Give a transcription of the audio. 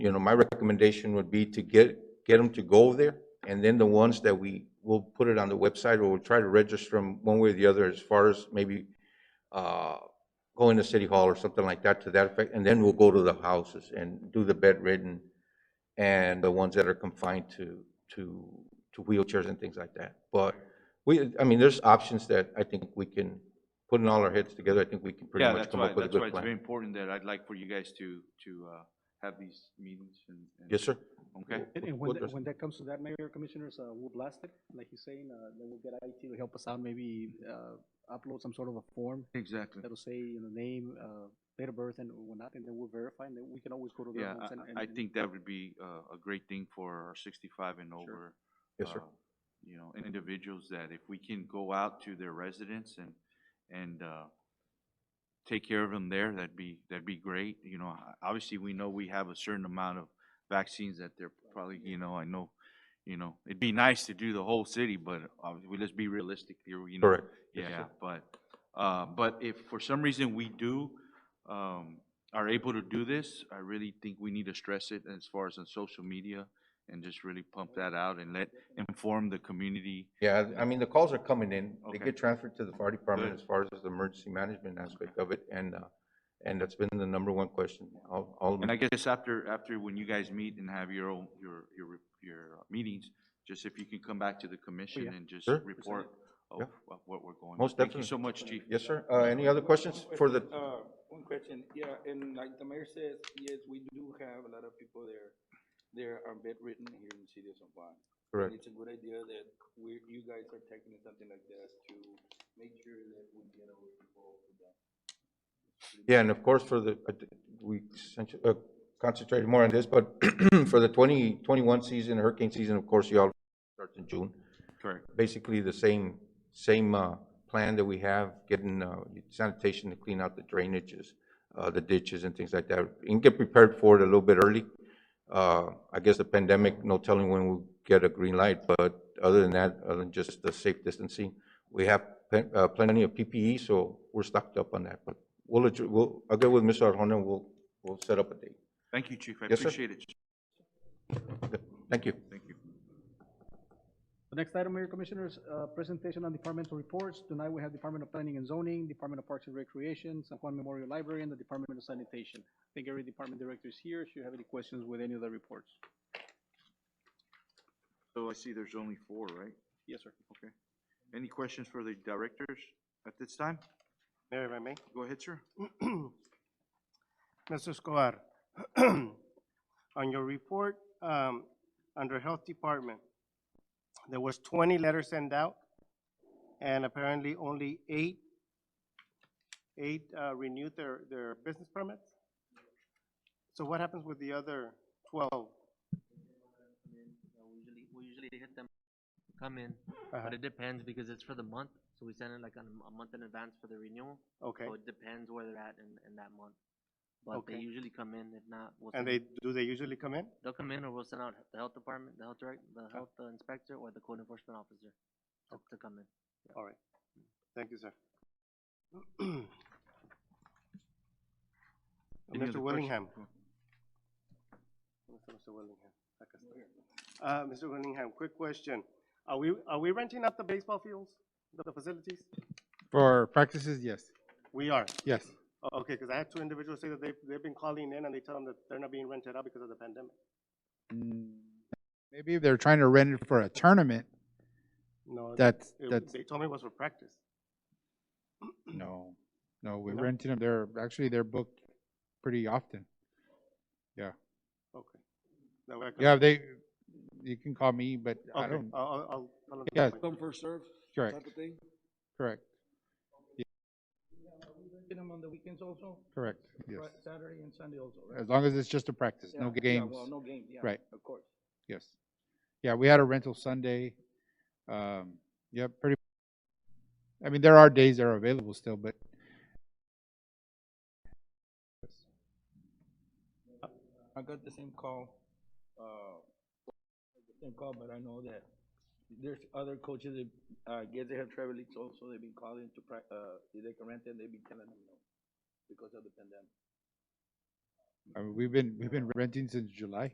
you know, my recommendation would be to get, get them to go there, and then the ones that we, we'll put it on the website, or we'll try to register them one way or the other, as far as maybe uh, going to City Hall or something like that to that effect, and then we'll go to the houses and do the bedridden and the ones that are confined to, to, to wheelchairs and things like that. But we, I mean, there's options that I think we can, putting all our heads together, I think we can pretty Yeah, much that's come why, up with a that's why good it's very plan. important that I'd like for you guys to, to uh, have these meetings and. and- Yes, sir? Okay, And, What and when, that- does- when that comes to that, Mayor Commissioners, uh, we'll blast it, like he's saying, uh, then we'll get IT to help us out, maybe, uh, upload some sort of a form exactly. that'll say, you know, name, uh, date of birth and whatnot, and then we'll verify, and then we can always go to their Yeah, homes and. and- I, I and- think that would be uh, a great thing for our sixty-five and over. Yes, sir. uh, You know, and individuals that if we can go out to their residence and, and uh, take care of them there, that'd be, that'd be great. You know, I- obviously, we know we have a certain amount of vaccines that they're probably, you know, I know, you know, it'd be nice to do the whole city, but uh, we- let's be realistic here, you know. Correct. Yes, Yeah, sir. but, uh, but if for some reason we do, um, are able to do this, I really think we need to stress it as far as on social media and just really pump that out and let, inform the community. Yeah, I mean, the calls are coming in. They Okay. get transferred to the fire department Good. as far as the emergency management aspect of it, and, uh, and that's been the number one question. All, all, And I guess after, after when you guys meet and have your own, your, your, your uh, meetings, just if you can come back to the commission yeah. and just Oh, Sure. report of Yeah. of what we're going. Most Thank you so definitely. much, chief. yes, sir. Uh, any other questions for the, Uh, one question, yeah, and like the mayor says, yes, we do have a lot of people there, there are bedridden here in the city of San Juan. And correct, it's a good idea that we, you guys are taking something like this to make sure that we get our people to them. yeah, and of course, for the, uh, we centra- uh, concentrated more on this, but for the twenty, twenty-one season, hurricane season, of course, y'all starts in June. Correct. basically the same, same uh, plan that we have, getting uh, sanitation to clean out the drainages, uh, the ditches and things like that, and get prepared for it a little bit early. Uh, I guess the pandemic, no telling when we'll get a green light, but other than that, other than just the safe distancing, we have plen- uh, plenty of PPE, so we're stocked up on that. But we'll, adj- we'll, I'll get with Mr. Arjona, and we'll, we'll set up a date. Thank you, chief. I Yes, sir. appreciate it. Thank you. Thank you. The next item, Mayor Commissioners, uh, presentation on departmental reports. Tonight, we have Department of Planning and Zoning, Department of Parks and Recreation, San Juan Memorial Library, and the Department of Sanitation. I think every department director is here, should you have any questions with any of the reports. So I see there's only four, right? Yes, sir. Okay. Any questions for the directors at this time? Mayor, if I may. Go ahead, sir. Mr. Escobar, on your report, um, under Health Department, there was twenty letters sent out, and apparently only eight, eight, uh, renewed their, their business permits? So what happens with the other twelve? Yeah, We usually, we usually hit them, come in, Uh-huh. but it depends because it's for the month, so we send it like on a m- a month in advance for the renewal. Okay, So it depends where they're at in, in that month. But they Okay. usually come in, if not, we'll. and send- they, do they usually come in? They'll come in or we'll send out the health department, the health direct, the health uh, inspector or the code enforcement officer to- to come in. All right, thank you, sir. Any other Mr. Willingham. questions? Mr. Willingham, acá está. Uh, Mr. Willingham, quick question. Are we, are we renting out the baseball fields, the- the facilities? For practices, yes, We are. yes. O- Okay, because I had two individuals say that they, they've been calling in and they tell them that they're not being rented out because of the pandemic. Maybe if they're trying to rent it for a tournament, No, that's, it- that's, They told me it was for practice. no, no, we're No? renting them, they're, actually, they're booked pretty often. Okay. That way I can- Yeah, they, you can call me, but I Okay, don't, I'll, I'll, I'll. tell them that Yeah. way. Come first serve correct, type Uh, of thing? correct, Get them on the weekends also, correct, yes. Fri- Saturday and Sunday also, right? As long as it's just a practice, no Yeah, yeah, games, Well, no games, yeah. Right. Of course. yes. Yeah, we had a rental Sunday, um, yeah, pretty, I mean, there are days that are available still, but I got the same call, uh, the same call, but I know that there's other coaches that, uh, guess they have travel leagues also, they've been calling to prac- uh, if they can rent and they've been telling them no because of the pandemic. I mean, we've been, we've been renting since July.